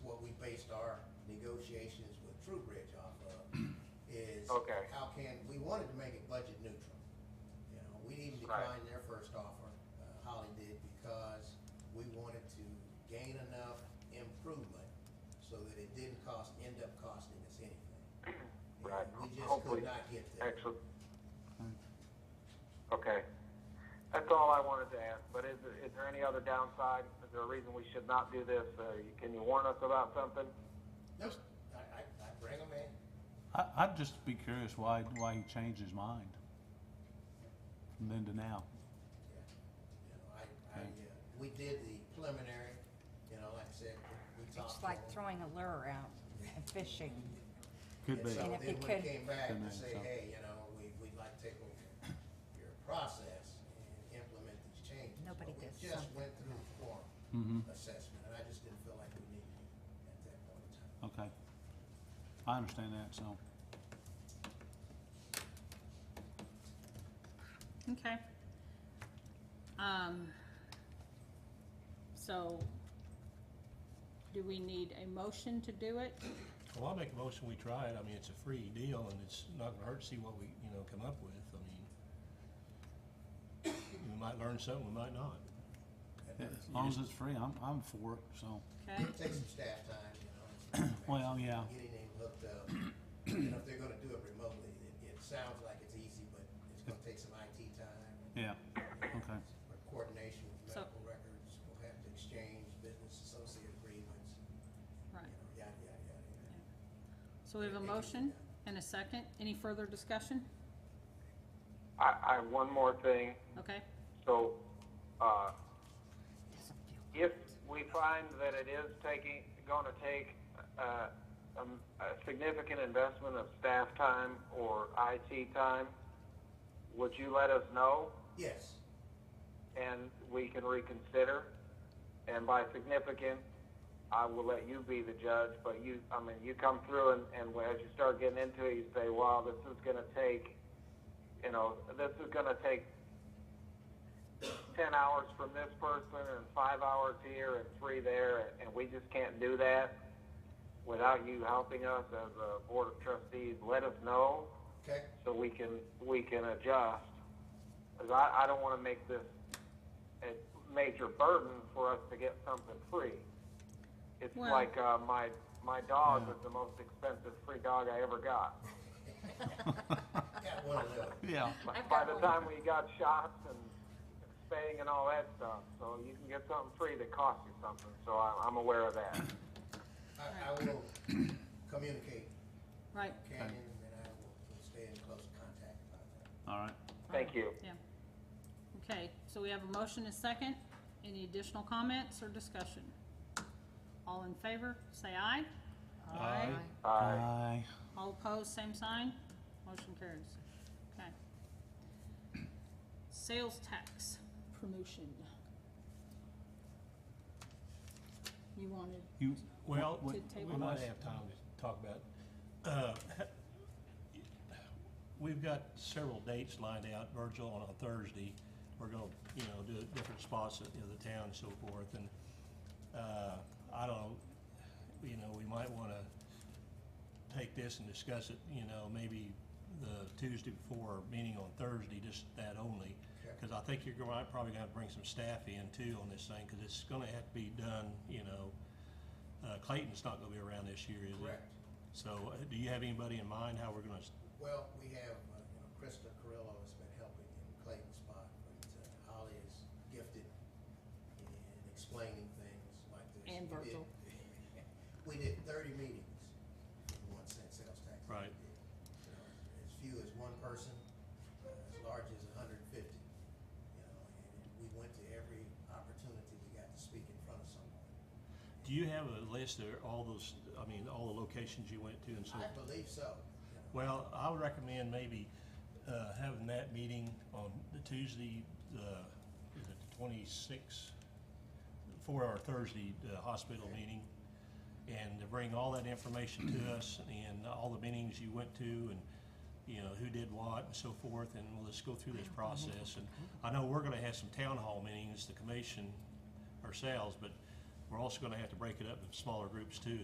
Okay. How can, we wanted to make it budget neutral. You know, we even Right. declined their first offer, uh, Holly did, because we wanted to gain enough improvement so that it didn't cost, end up costing us anything. You know, Right. We just Hopefully. could not get there. Excellent. Okay. That's all I wanted to ask, but is, is there any other downside? Is there a reason we should not do this? Uh, you- can you warn us about something? Nope, I, I, I bring them in. I, I'd just be curious why, why he changed his mind from then to now. Yeah, You know, I, I, uh, we did the preliminary, you know, like I said, we we talked. It's to like 'em. throwing a lure out and fishing. Could be. And so And then if when it it could- came back Could to be, say, so. hey, you know, we, we'd like to take over your process and implement these changes. Nobody But does We just something. went through the Mm-hmm. quorum assessment, and I just didn't feel like we needed it at that point in time. Okay. I understand that, so. Okay. Um, so, do we need a motion to do it? Well, I'll make a motion, we try it, I mean, it's a free deal, and it's not gonna hurt to see what we, you know, come up with, I mean. We might learn something, we might not. As long as it's free, I'm, I'm for it, so. Okay, Take some staff time, you know. and- Well, yeah. Getting them hooked up, you know, if they're gonna do it remotely, it, it sounds like it's easy, but it's gonna take some IT time. and- Yeah, okay. Coordination with So- medical records, we'll have to exchange business associate agreements, right. you know, yada, yada, yada, yada. So we have a motion and a second. Any further discussion? I, I have one more thing. Okay, So, uh, Doesn't feel if we find that it is taking, gonna take, uh, um, a significant investment of staff time or IT time, would you let us know? Yes, and we can reconsider. And by significant, I will let you be the judge, but you, I mean, you come through and, and as you start getting into it, you say, wow, this is gonna take, you know, this is gonna take ten hours from this person and five hours here and three there, and, and we just can't do that without you helping us as a board of trustees, let us know okay? so we can, we can adjust. 'Cause I, I don't wanna make this a major burden for us to get something free. It's Well- like, uh, my, my dog was the most expensive free dog I ever got. Got one of those. Yeah, By I've by got the one. time we got shots and spaying and all that stuff, so you can get something free that costs you something, so I'm, I'm aware of that. I, I will communicate right, with Canyon and I will stay in close contact about that. all right. Thank you. yeah. Okay, so we have a motion and a second. Any additional comments or discussion? All in favor, say aye. Aye. Aye. Aye. All opposed, same sign. Motion carries. Okay. Sales tax promotion. You wanted, You, Well, What- we To table might this? have time to talk about, uh, we've got several dates lined out, Virgil, on a Thursday. We're gonna, you know, do different spots in the town and so forth, and, uh, I don't, know, you know, we might wanna take this and discuss it, you know, maybe the Tuesday before, our meeting on Thursday, just that only. Okay. Because I think you're gonna, probably gonna have to bring some staff in too on this thing, because it's gonna have to be done, you know, uh, Clayton's not gonna be around this year, is he? Correct. So, uh, do you have anybody in mind how we're gonna, s- Well, we have, uh, you know, Krista Carrillo has been helping in Clayton's spot, but uh, Holly is gifted in explaining things like this. And We did- Virgil. We did thirty meetings for one cent sales tax. Right. You know, As few as one person, uh, as large as hundred and fifty, you know, and we went to every opportunity we got to speak in front of someone. do you have a list of all those, I mean, all the locations you went to and so? I believe so. you know. Well, I would recommend maybe, uh, having that meeting on the Tuesday, uh, is it the twenty-sixth? For our Thursday, uh, hospital meeting, and to bring all that information to us and all the meetings you went to and, you know, who did what and so forth, and we'll just go through this process. And I know we're gonna have some town hall meetings, the commission ourselves, but we're also gonna have to break it up in smaller groups too,